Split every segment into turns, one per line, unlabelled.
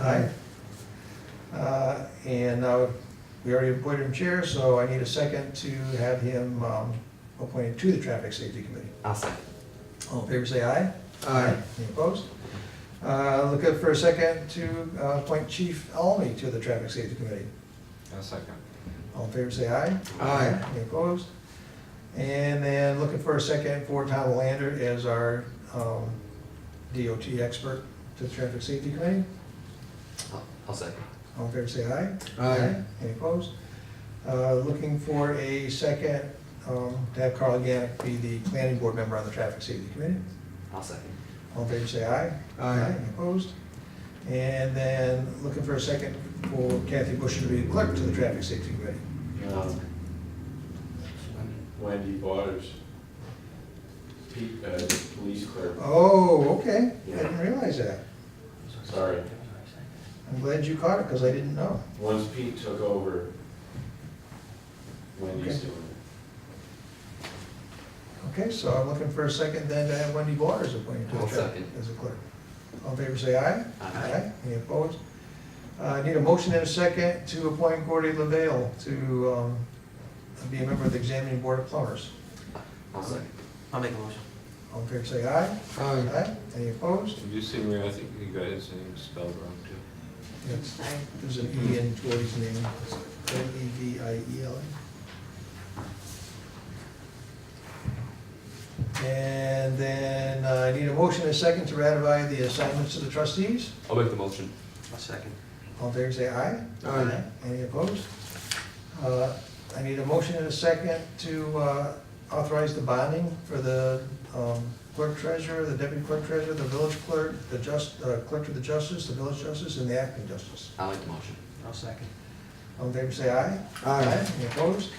Aye. Uh, And now, we already appointed him chair, so I need a second to have him um, appointed to the Traffic Safety Committee.
I'll second.
All in favor, say aye. Any opposed? Uh, Look up for a second to uh, appoint Chief Almy to the Traffic Safety Committee.
I'll second.
All in favor, say aye.
Aye.
Any opposed? And then looking for a second for Tom Lander as our um, DOT expert to the Traffic Safety Committee.
I'll- I'll second.
All in favor, say aye.
Aye.
Any opposed? Uh, Looking for a second, um, to have Carl Gannick be the planning board member on the traffic safety committee.
I'll second.
All in favor, say aye.
Aye.
Any Opposed? And then looking for a second for Kathy Bush to be clerk to the traffic safety committee.
Um, Wendy Waters, Pete, uh, police clerk,
Oh, okay. I
Yeah.
didn't realize that.
sorry.
I'm glad you caught it, because I didn't know.
Once Pete took over, Wendy's
Okay.
doing it.
Okay, so I'm looking for a second then to have Wendy Waters appointed to the
I'll
traffic
second.
as a clerk. All in favor, say aye.
Aye.
Any opposed? Uh, I need a motion and a second to appoint Gordy LaVale to um, be a member of the examining board of plumbers.
I'll second. I'll make a motion.
All in favor, say aye. Aye. Any opposed?
Did you see where I think you got his name spelled wrong too?
Yes. There's an E in Gordy's name, L E V I E L. And then uh, I need a motion and a second to ratify the assignments to the trustees.
I'll make the motion.
I'll second.
All in favor, say aye.
Aye.
Any opposed? Uh, I need a motion and a second to uh, authorize the bonding for the um, clerk treasurer, the deputy clerk treasurer, the village clerk, the just, uh, clerk of the justice, the village justice, and the acting justice.
I'll make the motion.
I'll second.
All in favor, say aye. Any opposed?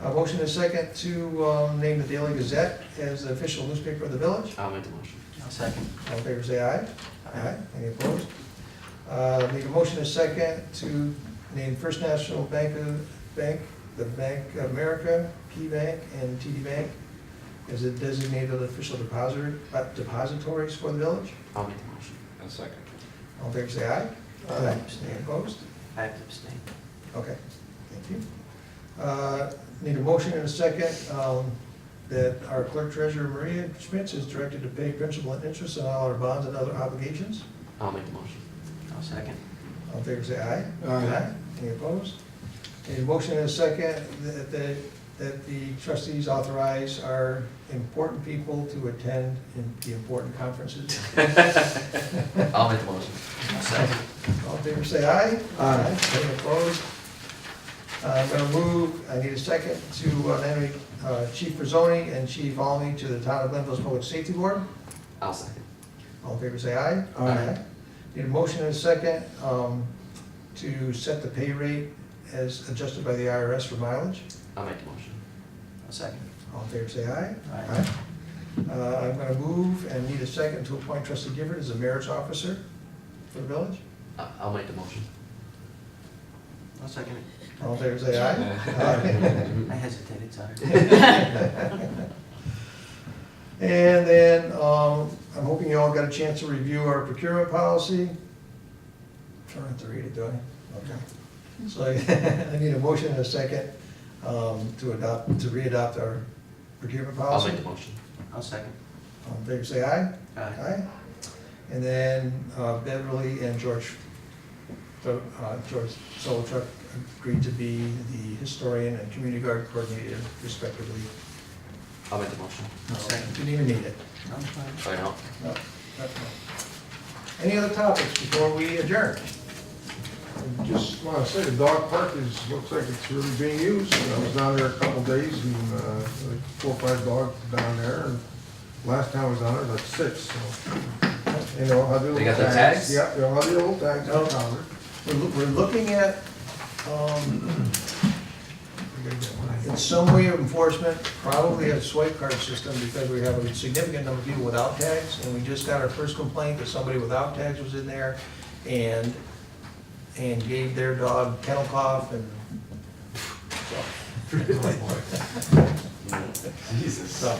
A motion and a second to um, name the Daily Gazette as the official newspaper of the village.
I'll make the motion.
I'll second.
All in favor, say aye. Any opposed? Uh, Need a motion and a second to name First National Bank, of- Bank, the Bank of America, Key Bank, and TD Bank as the designated official depositor, uh, depositories for the village.
I'll make the motion.
A second.
All in favor, say aye.
Aye.
Any opposed?
I have to abstain.
Okay, thank you. Uh, Need a motion and a second um, that our clerk treasurer Maria Schmitz is directed to pay principal and interest on all our bonds and other obligations.
I'll make the motion.
I'll second.
All in favor, say aye.
Aye.
Any opposed? Need a motion and a second that, that- that the trustees authorize our important people to attend in- the important conferences.
I'll make the motion.
I'll second.
All in favor, say aye.
Aye.
Any opposed? Uh, I'm going to move, I need a second, to uh, nominate uh, Chief Rizzoni and Chief Almy to the Town of Glenville's Public Safety Board.
I'll second.
All in favor, say aye.
Aye.
Need a motion and a second um, to set the pay rate as adjusted by the IRS for mileage.
I'll make the motion.
I'll second.
All in favor, say aye.
Aye.
Uh, I'm going to move and need a second to appoint trustee Gifford as the mayor's officer for the village.
I- I'll make the motion.
I'll second it.
All in favor, say aye. Aye.
I hesitated, sorry.
And then, um, I'm hoping you all got a chance to review our procurement policy. Trying not to read it, do I? Okay. So I I need a motion and a second, um, to adopt, to re-adopt our procurement
I'll
policy.
make the motion.
I'll second.
All in favor, say aye.
Aye.
And then uh, Beverly and George, the, uh, George Solotruck agreed to be the historian and community guard coordinator respectively.
I'll make the motion.
Second.
Didn't even need it.
I'm fine.
Sorry, no.
No, that's fine. Any other topics before we adjourn?
I Just want to say, the dog park is, looks like it's really being used. I was down there a couple days and uh, like four or five dogs down there. And Last time I was down there, like six, so. You know, how the old
They got
tags.
the tags? Oh.
Yeah, you know, how the old tags
No.
are counted.
We're, loo- we're looking at, um, in some way of enforcement, probably a swipe card system because we have a significant number of people without tags. And we just got our first complaint that somebody without tags was in there and, and gave their dog kennel cough and,
Jesus.
so,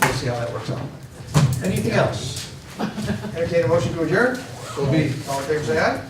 we'll see how that works out. Anything else? Entertain a motion to adjourn? Will be. All in favor, say aye.